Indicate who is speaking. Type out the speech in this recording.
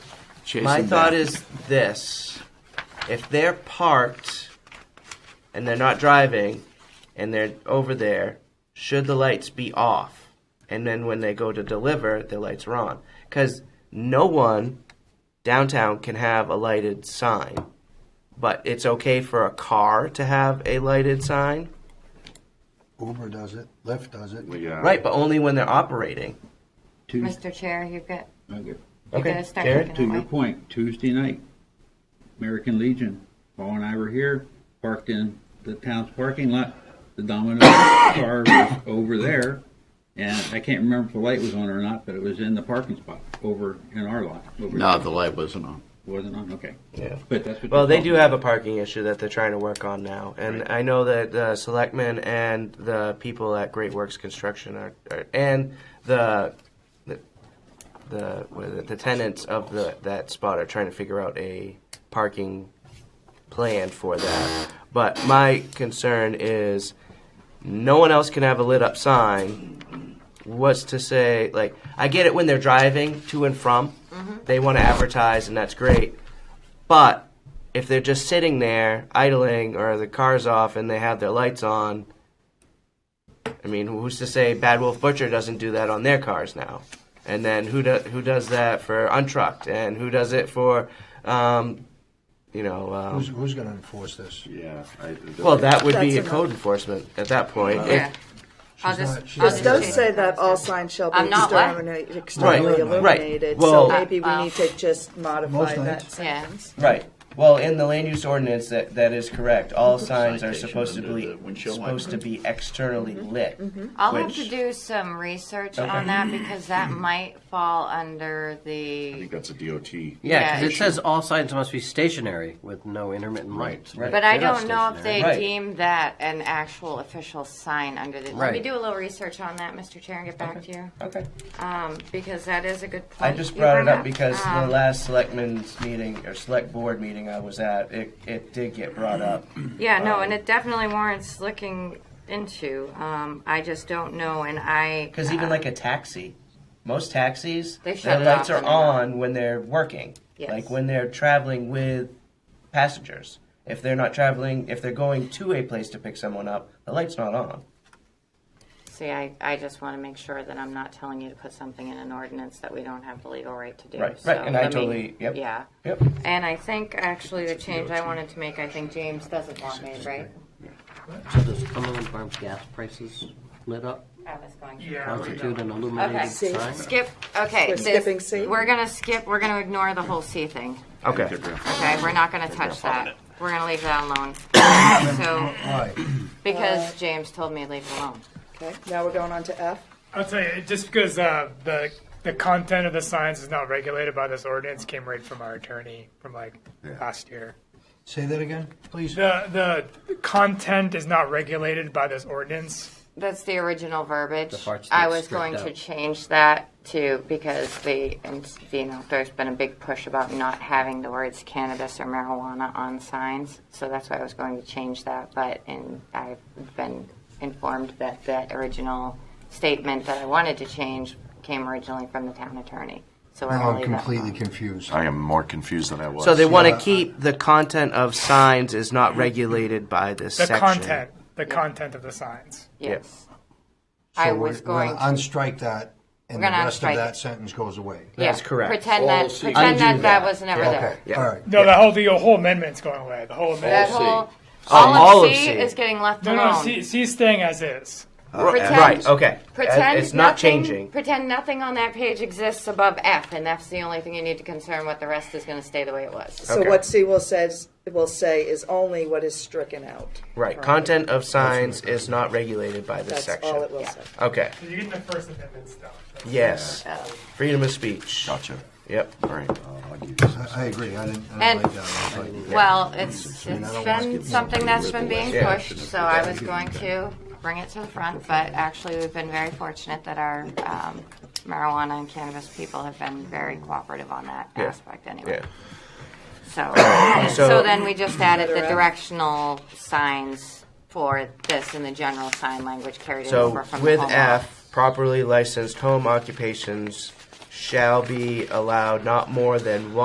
Speaker 1: chasing.
Speaker 2: My thought
Speaker 1: that.
Speaker 2: is this: if they're parked and they're not driving and they're over there, should the lights be off? And then when they go to deliver, the lights are on because no one downtown can have a lighted sign, but it's okay for a car to have a lighted sign,
Speaker 3: Uber does it, Lyft does it.
Speaker 1: Yeah.
Speaker 2: right? But only when they're operating.
Speaker 4: Tues-
Speaker 5: Mr. Chair, you've got,
Speaker 4: okay.
Speaker 5: you're
Speaker 2: Okay,
Speaker 5: gonna start
Speaker 2: Jared?
Speaker 5: looking
Speaker 4: To
Speaker 5: that
Speaker 4: your
Speaker 5: way.
Speaker 4: point, Tuesday night, American Legion, Paul and I were here, parked in the town's parking lot. The Domino's car was over there, and I can't remember if the light was on or not, but it was in the parking spot over in our lot. over
Speaker 1: No,
Speaker 4: there.
Speaker 1: the light wasn't on.
Speaker 4: Wasn't on, okay.
Speaker 2: Yeah.
Speaker 4: But that's what.
Speaker 2: Well, they
Speaker 4: thought.
Speaker 2: do have a parking issue that they're trying to work on now, and I know that the selectmen and the people at Great Works Construction are, are and the the the, what is it, the tenants of the that spot are trying to figure out a parking plan for that. But my concern is no one else can have a lit up sign. What's to say? Like, I get it when they're driving to and from, they want to advertise, and that's great. But if they're just sitting there idling or the car's off and they have their lights on, I mean, who's to say Bad Wolf Butcher doesn't do that on their cars now? And then who do, who does that for Untrucked? And who does it for, um, you know? Um,
Speaker 3: Who's, who's gonna enforce this?
Speaker 1: Yeah. I,
Speaker 2: well, that would be
Speaker 6: That's
Speaker 2: a code enforcement at that point. If-
Speaker 5: Yeah. I'll
Speaker 3: She's
Speaker 5: just,
Speaker 3: not- she's
Speaker 5: I'll
Speaker 3: not-
Speaker 5: just
Speaker 6: It does
Speaker 5: change
Speaker 6: say
Speaker 5: it.
Speaker 6: that all signs shall be
Speaker 5: I'm not what?
Speaker 6: exterminated,
Speaker 2: Right,
Speaker 6: externally
Speaker 3: right.
Speaker 6: illuminated,
Speaker 2: Well-
Speaker 6: so maybe we
Speaker 5: Uh,
Speaker 6: need to just modify
Speaker 3: Most
Speaker 6: that
Speaker 3: nights.
Speaker 5: Yeah.
Speaker 6: sentence.
Speaker 2: Right. Well, in the land use ordinance, that, that is correct. All signs are
Speaker 1: Citation
Speaker 2: supposed to
Speaker 1: under
Speaker 2: be
Speaker 1: the windshield
Speaker 2: supposed to
Speaker 1: wiper.
Speaker 2: be externally lit.
Speaker 5: Mm-hmm. I'll
Speaker 2: which-
Speaker 5: have to do some research
Speaker 2: Okay.
Speaker 5: on that because that might fall under
Speaker 1: I
Speaker 5: the.
Speaker 1: think that's a DOT.
Speaker 7: Yeah, because
Speaker 5: Yeah.
Speaker 7: it says all signs must be stationary with no intermittent lights.
Speaker 2: Right.
Speaker 5: But I
Speaker 7: They're not
Speaker 5: don't know if they
Speaker 2: Right.
Speaker 5: deem that an actual official sign under the. Let me
Speaker 7: Right.
Speaker 5: do a little research on that, Mr. Chair, and get back to you
Speaker 2: Okay.
Speaker 5: um, because that is a good
Speaker 2: I
Speaker 5: point.
Speaker 2: just
Speaker 5: Oh, you
Speaker 2: brought it
Speaker 5: bring
Speaker 2: up because the
Speaker 5: Um,
Speaker 2: last selectmen's meeting or select board meeting I was at, it, it did get brought up.
Speaker 5: Yeah, no, and it definitely warrants looking into. Um, I just don't know, and I
Speaker 2: Because even like a taxi, most taxis,
Speaker 5: They
Speaker 2: their
Speaker 5: shut it
Speaker 2: lights
Speaker 5: off
Speaker 2: are
Speaker 5: when they're not-
Speaker 2: on when they're working.
Speaker 5: Yes.
Speaker 2: Like when they're traveling with passengers. If they're not traveling, if they're going to a place to pick someone up, the light's not on.
Speaker 5: see, I, I just want to make sure that I'm not telling you to put something in an ordinance that we don't have the legal right to do.
Speaker 2: Right,
Speaker 5: so
Speaker 2: right, and I
Speaker 5: let me-
Speaker 2: totally- yep.
Speaker 5: Yeah,
Speaker 2: Yep.
Speaker 5: and I think actually the change I wanted to make, I think James doesn't want made, right?
Speaker 7: So does Cumberland Farms gas prices lit up
Speaker 5: I was going. to-
Speaker 7: constitute an illuminated
Speaker 5: Okay.
Speaker 7: sign?
Speaker 5: Skip. Okay,
Speaker 6: We're
Speaker 5: this-
Speaker 6: skipping C?
Speaker 5: We're gonna skip. We're gonna ignore the whole C thing.
Speaker 2: Okay.
Speaker 5: Okay, we're not gonna touch that. We're gonna leave that alone. so
Speaker 3: Why?
Speaker 5: because James told me to leave it alone.
Speaker 6: Okay, now we're going on to F.
Speaker 8: I'll tell you, just because uh, the the content of the signs is not regulated by this ordinance came right from our attorney from like last year.
Speaker 3: Say that again, please.
Speaker 8: The the content is not regulated by this ordinance.
Speaker 5: That's the original verbiage.
Speaker 7: parts
Speaker 5: I
Speaker 7: that's
Speaker 5: was going
Speaker 7: stripped
Speaker 5: to
Speaker 7: out.
Speaker 5: change that too because the, and, you know, there's been a big push about not having the words cannabis or marijuana on signs. So that's why I was going to change that, but, and I've been informed that that original statement that I wanted to change came originally from the town attorney. So we're
Speaker 3: Now
Speaker 5: going
Speaker 3: I'm
Speaker 5: to leave
Speaker 3: Oh,
Speaker 5: that
Speaker 3: completely
Speaker 5: alone.
Speaker 3: confused.
Speaker 1: I am more confused than I was.
Speaker 2: So they want
Speaker 3: Yeah,
Speaker 2: to
Speaker 3: I-
Speaker 2: keep the content of signs is not regulated by this
Speaker 8: The
Speaker 2: section.
Speaker 8: content, the content of the signs.
Speaker 5: Yes.
Speaker 3: So
Speaker 5: I
Speaker 3: we're-
Speaker 5: was
Speaker 3: we're
Speaker 5: going
Speaker 3: gonna
Speaker 5: to.
Speaker 3: Unstrike that, and the
Speaker 5: We're gonna
Speaker 3: rest
Speaker 5: unstrike
Speaker 3: of that
Speaker 5: it.
Speaker 3: sentence goes away.
Speaker 2: That's
Speaker 5: yeah,
Speaker 2: correct.
Speaker 5: Pretend that, pretend
Speaker 2: Undo
Speaker 5: that that
Speaker 2: that.
Speaker 5: was never there.
Speaker 3: Okay,
Speaker 2: Yeah.
Speaker 3: all right.
Speaker 8: No, the whole the whole amendment's going away. The whole
Speaker 5: That
Speaker 8: amendment.
Speaker 5: whole
Speaker 2: Oh,
Speaker 5: all,
Speaker 2: all
Speaker 5: of,
Speaker 2: of
Speaker 5: C,
Speaker 2: C.
Speaker 5: is getting left
Speaker 8: No,
Speaker 5: alone.
Speaker 8: no, see, see, it's staying as is.
Speaker 5: Pretend-
Speaker 2: Right. Okay. Uh,
Speaker 5: Pretend
Speaker 2: it's not
Speaker 5: nothing-
Speaker 2: changing.
Speaker 5: Pretend nothing on that page exists above F, and that's the only thing you need to concern with. The rest is going to stay the way it was.
Speaker 6: So
Speaker 2: Okay.
Speaker 6: what C will says, will say is only what is stricken out.
Speaker 2: Right. Content of signs is not regulated by this
Speaker 6: That's
Speaker 2: section.
Speaker 6: all it will say.
Speaker 2: Okay.
Speaker 8: You get the First Amendment stuff.
Speaker 2: Yes.
Speaker 5: Uh,
Speaker 2: Freedom of speech.
Speaker 1: Gotcha.
Speaker 2: Yep.
Speaker 1: All right. Uh, I'll give you some.
Speaker 3: I I agree, I didn't, I
Speaker 5: And-
Speaker 3: don't like that. I don't like that.
Speaker 5: Well, it's
Speaker 3: mean, I
Speaker 5: it's
Speaker 3: don't wanna
Speaker 5: been
Speaker 3: skip
Speaker 5: something that's been being
Speaker 2: Yeah.
Speaker 5: pushed, so I was going to bring it to the front. But actually, we've been very fortunate that our um, marijuana and cannabis people have been very cooperative on that
Speaker 2: Yeah.
Speaker 5: aspect, anyway.
Speaker 2: Yeah.
Speaker 5: So,
Speaker 2: So-
Speaker 5: so, then we just added the directional signs for this and the general sign language carried
Speaker 2: So
Speaker 5: over from
Speaker 2: with
Speaker 5: the home law.
Speaker 2: F, properly licensed home occupations shall be allowed not more than one.